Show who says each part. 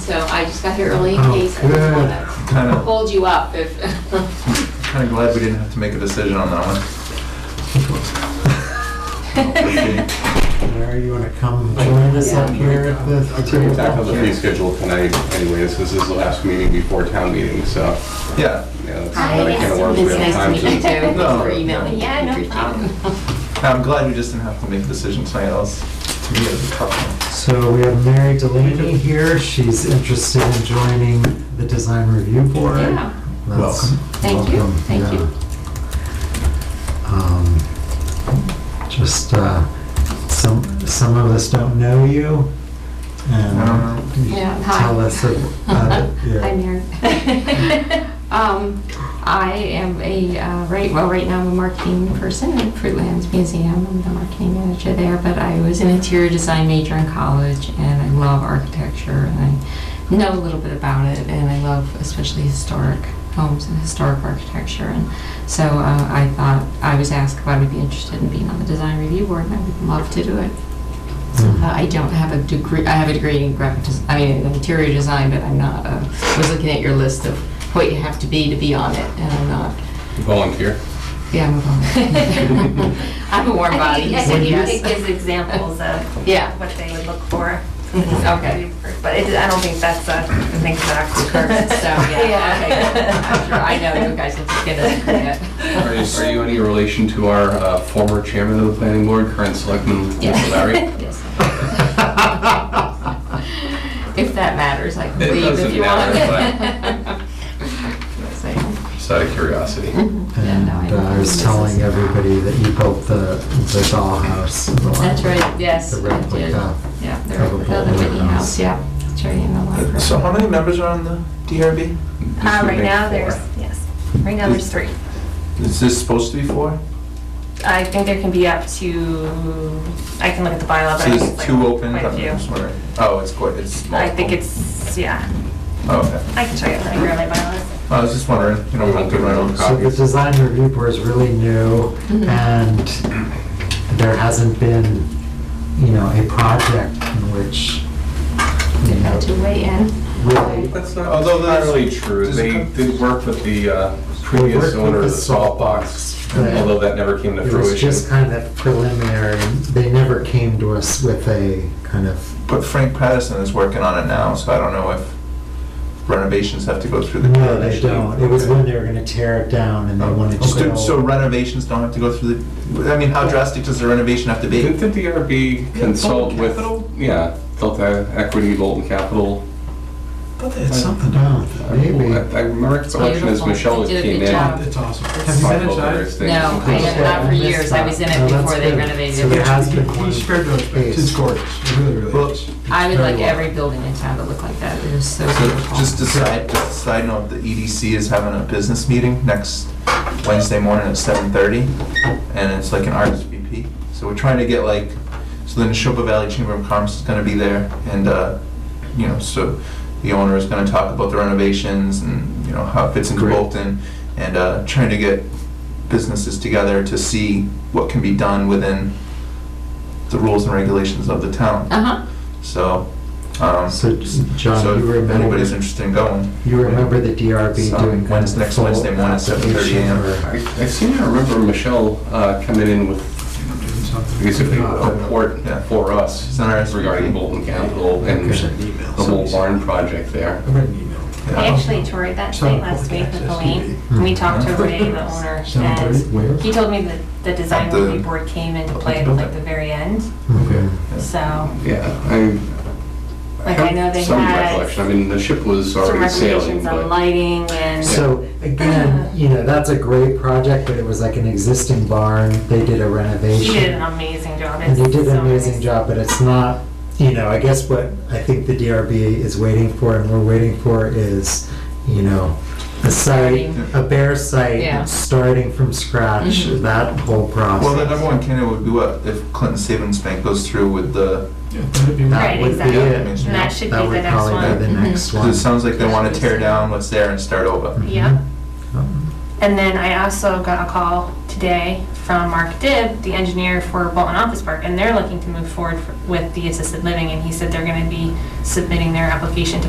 Speaker 1: so I just got here early in case I didn't want
Speaker 2: Kind
Speaker 1: to
Speaker 2: of,
Speaker 1: hold you up if,
Speaker 2: kind of glad we didn't have to make a decision on that one.
Speaker 3: Larry, you want to come join us up here at the
Speaker 1: um,
Speaker 4: We
Speaker 3: table?
Speaker 4: tackled the fee schedule tonight anyways, this is the last meeting before town meeting, so.
Speaker 2: Yeah,
Speaker 1: Hi, yes, it's nice to meet you too. Thanks for emailing. Yeah, no problem.
Speaker 2: I'm glad we just didn't have to make a decision tonight, else to me it was a tough
Speaker 3: So we have Mary Delaney here. She's interested in joining the design review board.
Speaker 1: Yeah.
Speaker 3: That's-
Speaker 2: Welcome.
Speaker 1: Thank you,
Speaker 3: welcome,
Speaker 1: thank you.
Speaker 3: yeah. Um, Just, uh, some, some of us don't know you. and
Speaker 2: I don't
Speaker 3: you
Speaker 1: Yeah, hi.
Speaker 3: Tell us about it. yeah.
Speaker 1: Hi, Mary. Um, I am a, uh, right, well, right now I'm a marketing person at Fruitlands Museum. I'm the marketing manager there, but I was an interior design major in college and I love architecture and I know a little bit about it and I love especially historic homes and historic architecture. And so uh, I thought, I was asked if I would be interested in being on the design review board and I would love to do it. So, uh, I don't have a degree, I have a degree in graphic, des- I mean, in interior design, but I'm not, uh, I was looking at your list of what you have to be to be on it, and I'm not,
Speaker 4: Volunteer.
Speaker 1: yeah, I'm a volunteer. I'm a warm
Speaker 5: I
Speaker 1: body.
Speaker 5: think, I
Speaker 1: so
Speaker 5: think
Speaker 1: yes.
Speaker 5: it gives examples of
Speaker 1: Yeah.
Speaker 5: what they would look for.
Speaker 1: Mhm, okay.
Speaker 5: But it, I don't think that's a, an exact curve,
Speaker 1: So, yeah, okay, good. I'm sure I know you guys will get it.
Speaker 4: Are you, are you any relation to our uh, former chairman of the planning board, current selectman, Mr. Larry?
Speaker 1: Yes. If that matters, I can
Speaker 4: It
Speaker 1: leave if
Speaker 4: doesn't
Speaker 1: you want.
Speaker 4: matter,
Speaker 1: So,
Speaker 4: Just out of curiosity.
Speaker 1: Hmm? Mm-hmm. yeah, no, I
Speaker 3: And uh, I was
Speaker 1: this is-
Speaker 3: telling everybody that you built the, the dollhouse. in the
Speaker 1: That's
Speaker 3: library.
Speaker 1: right, yes.
Speaker 3: The uh,
Speaker 1: I did.
Speaker 3: replica.
Speaker 1: Yeah, the
Speaker 3: of a
Speaker 1: replica, the
Speaker 3: Bolton
Speaker 1: Whitney
Speaker 3: house.
Speaker 1: House, yeah. It's right in the
Speaker 2: one.
Speaker 1: library.
Speaker 2: So how many members are on the DRB?
Speaker 5: Uh, right now, there's, yes, right now there's three.
Speaker 2: Is this supposed to be four?
Speaker 5: I think there can be up to, I can look at the bylaw, but
Speaker 2: So
Speaker 5: I
Speaker 2: there's
Speaker 5: think it's
Speaker 2: two
Speaker 5: like
Speaker 2: open?
Speaker 5: quite a
Speaker 2: I'm
Speaker 5: few.
Speaker 2: just wondering. Oh, it's quite, it's multiple. Oh,
Speaker 5: I think it's, yeah,
Speaker 2: Okay.
Speaker 5: I can show you pretty early bylaws.
Speaker 2: I was just wondering, you know, we'll do my own
Speaker 3: So the
Speaker 2: copies.
Speaker 3: design review board is really new
Speaker 1: Mhm.
Speaker 3: and there hasn't been, you know, a project in which, you
Speaker 1: They've
Speaker 3: know,
Speaker 1: got to weigh in.
Speaker 3: really
Speaker 4: That's not, although not really true,
Speaker 2: Does it
Speaker 4: they
Speaker 2: come-
Speaker 4: did work with the uh,
Speaker 3: They
Speaker 4: previous
Speaker 3: worked
Speaker 4: owner
Speaker 3: with
Speaker 4: of
Speaker 3: the
Speaker 4: the salt
Speaker 3: salt
Speaker 4: box,
Speaker 3: box, right.
Speaker 4: although that never came to
Speaker 3: it was just
Speaker 4: fruition.
Speaker 3: kind of preliminary. They never came to us with a kind of,
Speaker 2: But Frank Patterson is working on it now, so I don't know if renovations have to go through the.
Speaker 3: no, they
Speaker 2: initially.
Speaker 3: don't. It was when they were gonna tear it down and they wanted to.
Speaker 2: Just do-
Speaker 3: go-
Speaker 2: So renovations don't have to go through the, I mean, how drastic does the renovation have to be?
Speaker 4: Didn't the DRB
Speaker 2: Yeah,
Speaker 4: consult
Speaker 2: Bolton
Speaker 4: with,
Speaker 2: Capital?
Speaker 4: yeah, Delta Equity, Bolton Capital? Uh,
Speaker 2: But it's
Speaker 3: I don't- Maybe.
Speaker 4: I I remember its election as
Speaker 1: beautiful.
Speaker 4: Michelle
Speaker 1: They did a
Speaker 4: came
Speaker 1: good
Speaker 4: in.
Speaker 5: Um,
Speaker 1: job.
Speaker 2: It's awesome.
Speaker 6: Have you been
Speaker 4: Talked about
Speaker 6: inside?
Speaker 4: various things.
Speaker 1: No, I have not for years. I was in
Speaker 3: Oh,
Speaker 1: it
Speaker 3: that's
Speaker 1: before they
Speaker 3: good.
Speaker 1: renovated
Speaker 3: So there
Speaker 1: it.
Speaker 3: has been one.
Speaker 6: He spared those, but it's gorgeous, it really, really is.
Speaker 1: I would
Speaker 3: very
Speaker 1: like
Speaker 3: well.
Speaker 1: every building in town to look like that. It is so
Speaker 2: So
Speaker 1: beautiful.
Speaker 2: just a side, just a side note, the EDC is having a business meeting next Wednesday morning at seven thirty, and it's like an RSVP. So we're trying to get like, so the Neshoba Valley Chamber of Commerce is gonna be there, and, uh, you know, so the owner is gonna talk about the renovations and, you know, how it fits into
Speaker 4: Great.
Speaker 2: Bolton, and, uh, trying to get businesses together to see what can be done within the rules and regulations of the town.
Speaker 1: Uh-huh.
Speaker 2: So, um,
Speaker 3: So, John,
Speaker 2: so
Speaker 3: you
Speaker 2: if
Speaker 3: remember-
Speaker 2: anybody's interested in going.
Speaker 3: You remember the DRB
Speaker 2: So,
Speaker 3: doing kind
Speaker 2: when's
Speaker 3: of
Speaker 2: next
Speaker 3: full
Speaker 2: Wednesday morning at 7:30 a.m.?
Speaker 3: application or-
Speaker 4: I I seem to remember Michelle uh, coming in with, basically a report
Speaker 2: Yeah.
Speaker 4: for us
Speaker 2: It's an RSVP.
Speaker 4: regarding Bolton Capital and the whole barn project there.
Speaker 6: I read an email.
Speaker 5: I actually toured that site last week with Elaine, and we talked to Ray, the owner, and
Speaker 6: where?
Speaker 5: He told me that the design
Speaker 2: At the-
Speaker 5: review board came into play at like the very end,
Speaker 3: Mm, Okay.
Speaker 5: so,
Speaker 4: Yeah, I.
Speaker 5: like I know they
Speaker 4: Some
Speaker 5: had
Speaker 4: recollection, I mean, the ship was
Speaker 5: some
Speaker 4: already sailing,
Speaker 5: recommendations on
Speaker 4: but.
Speaker 5: lighting and.
Speaker 3: So again, you know, that's a great project, but it was like an existing barn. They did a
Speaker 5: He
Speaker 3: renovation.
Speaker 5: did an amazing job.
Speaker 3: And you
Speaker 5: It's
Speaker 3: did an
Speaker 5: so nice.
Speaker 3: amazing job, but it's not, you know, I guess what I think the DRB is waiting for and we're waiting for is, you know, a site, a bare
Speaker 1: Yeah.
Speaker 3: site, starting from scratch,
Speaker 5: Mm-hmm.
Speaker 1: Mhm.
Speaker 3: that whole
Speaker 2: Well, the
Speaker 3: process.
Speaker 2: number one candidate would be what, if Clinton Savings Bank goes through with the,
Speaker 3: That
Speaker 5: Right,
Speaker 3: would be
Speaker 5: exactly.
Speaker 3: it.
Speaker 5: And that should be
Speaker 3: That
Speaker 5: the
Speaker 3: would
Speaker 5: next
Speaker 3: probably be
Speaker 5: one. Mm-hmm.
Speaker 3: the
Speaker 1: Mhm.
Speaker 3: next
Speaker 2: because
Speaker 3: one. Mm-hmm.
Speaker 2: it sounds like they want to tear down what's there and start over.
Speaker 5: Yeah.
Speaker 3: Um,
Speaker 5: And then I also got a call today from Mark Dibb, the engineer for Bolton Office Park, and they're looking to move forward for- with the assisted living, and he said they're gonna be submitting their application to